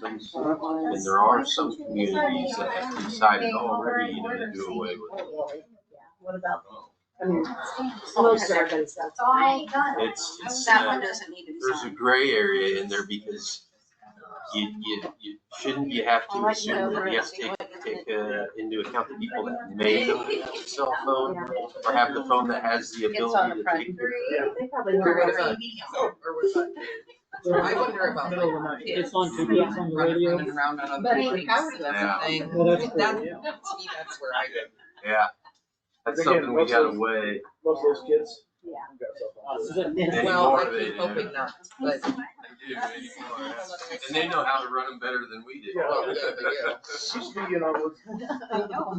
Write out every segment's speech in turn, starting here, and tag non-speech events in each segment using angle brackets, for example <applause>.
places, and there are some communities that have decided already to do away with Oh. it. What about, I mean, most everybody's got. So I ain't done it. It's, it's, That one uh, doesn't need to be there's a signed. gray area in there because you, you, you shouldn't, you have to assume that you have to take take uh, into account the people that made the cell phone or have the phone that has the It's on ability the to take. front. the- They probably know what it's. I wonder about Middle of the night. It's on TV, Yeah. it's on the radio. Running around on other But it things, covers that's the thing. Well, that's cool, That- yeah. to me, that's where I go. Yeah, that's something we gotta weigh. Most of those kids. Yeah. have got cell phones. This is it. Yeah. Well, I Anymore they keep do. hoping not, <laughs> but They do anymore. And they know how to run them better than we do. Well, <laughs> yeah, they do. It Used to be, you know, with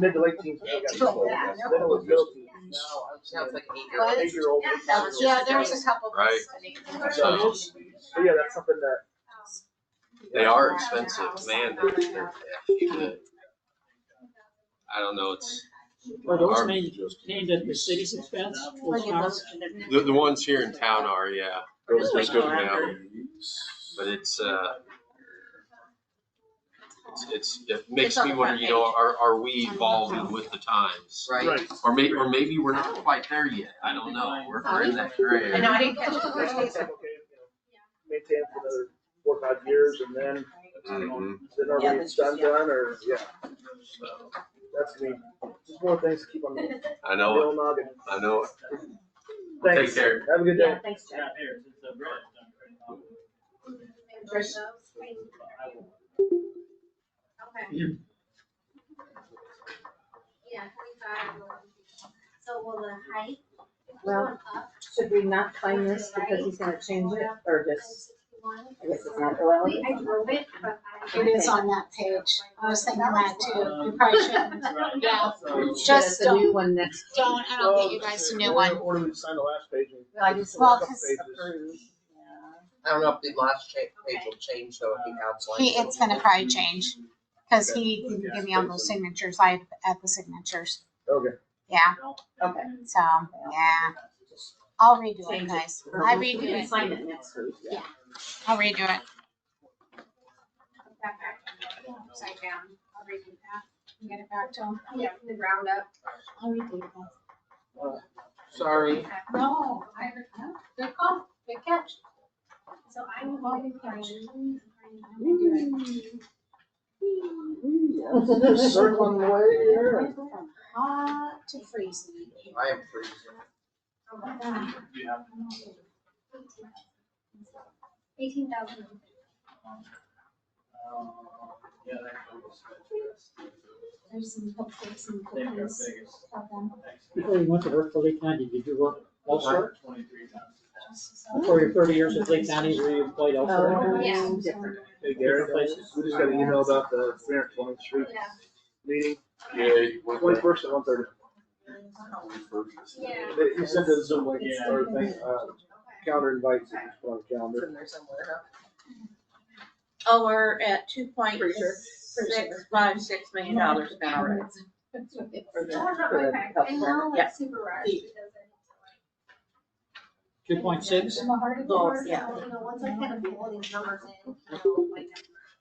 mid to late teens, they got cell phones. Yeah. Then it was middle teens. now it's like an Now, eight-year-old. I'm eight year old. Yeah, there was a couple. Right. So, yeah, that's something that. They are expensive, man, they're, they're, shit. I don't know, it's, Are those Our- named, named at the city's expense? Those towers? the, the ones here in town are, yeah, Those They go are- down. but it's, uh, it's, it's, it makes It's on me the wonder, front you know, page. are, are we evolving with the times? Right. Or may, or maybe we're not quite there yet, I don't know, we're, we're in that gray Oh. I know, area. I didn't catch it the first Okay, day. you know, Maintain for another four, or five years and then, Mm-hmm. Mhm. then Yeah, already it's that's done, just- yeah. done, or, yeah, So, that's me. Just more things to keep on the I the know, old noggin. I know, Thanks. Take care. Have a good day. Yeah, thanks, Jeff. So will the height? Well, Should we not claim this because he's gonna change it or just, I guess it's not allowed? I drove it, but I. It is on that page. I was thinking that too. You probably shouldn't. Yeah. Get us Just a new one next. Don't, I don't get you guys a new one. Or do we sign the last page and? Like, it's Well, Couple 'cause pages. I don't know if the last cha- page will change though, if he outlines. He, it's gonna probably change, cause he didn't give me all those signatures, I had to add the signatures, Okay. yeah, Okay. so, yeah. I'll redo it, guys, I <laughs> redo We can it, sign it next week, yeah. I'll redo it, Upside down, I'll redo that. and get it back to him, Yeah, from the ground up. I'll redo it, guys. Sorry. No, I, no, good call, good catch. So I'm going to plan. <laughs> Circling the way here. Hot to freeze. I am freezing. Eighteen thousand. There's some hopefully some good news about them. Before you went to work for Lee County, did you work elsewhere? For your thirty years at Lee County, were you employed elsewhere? Oh, Yeah. different. Hey Gary, we just got an email about the three hundred twentieth street Yeah. meeting, yeah, what the- twenty first at one thirty. Yeah. He sent a Zoom link or thing, uh, calendar invites, if you put on the calendar. there somewhere, huh? Oh, we're at two point Pretty sure. six five six million dollars an hour. Okay, and now Yeah. it's super rushed because I. Two point six? I'm a hard to Goals, work, yeah. so, you know, once I kind of get all these numbers in, you know, like,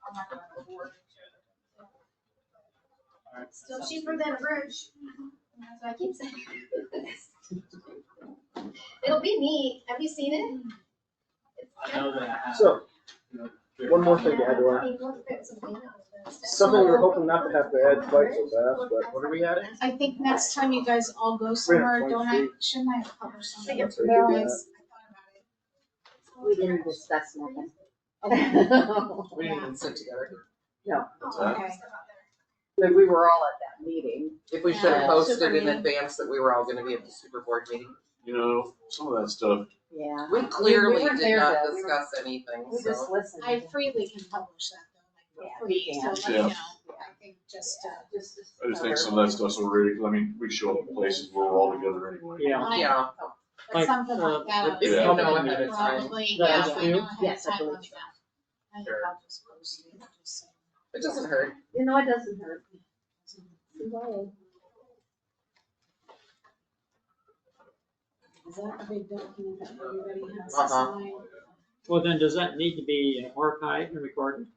I'm not gonna go forward. Still cheaper than a bridge. That's what I keep saying. <laughs> It'll be neat. Have you seen it? It's- So, one more thing to add to our, Yeah, people have put something else, but it's- something we were hoping not to have to add quite so fast, but What are we at? I think next time you guys all go somewhere, don't I, shouldn't I cover something? Think it's pretty good, yeah. Realize- We didn't discuss nothing. We didn't even sit together. Oh, Okay. <laughs> But we were all at that meeting. If we should have Yeah. posted in advance that we were all gonna be at the super board meeting. You know, some of that stuff, Yeah. We clearly were did there, not though. We were- discuss anything, We so. just listened. I freely can publish that though, like, Yeah, for free, so let me Yeah. know, I think just, uh, Just- I just think some of that stuff's already, I mean, we show up in places where we're all together anyway. Yeah. I- Yeah, but something like that. if you Yeah. know ahead of time, Probably, That yeah, is if I you? know ahead of Yes, I time believe like so. that. I think Sure. I'll just post it, just so. it doesn't hurt. You know, it doesn't hurt. Is that a big document that everybody has Uh-huh. signed? Well, then does that need to be archived and recorded?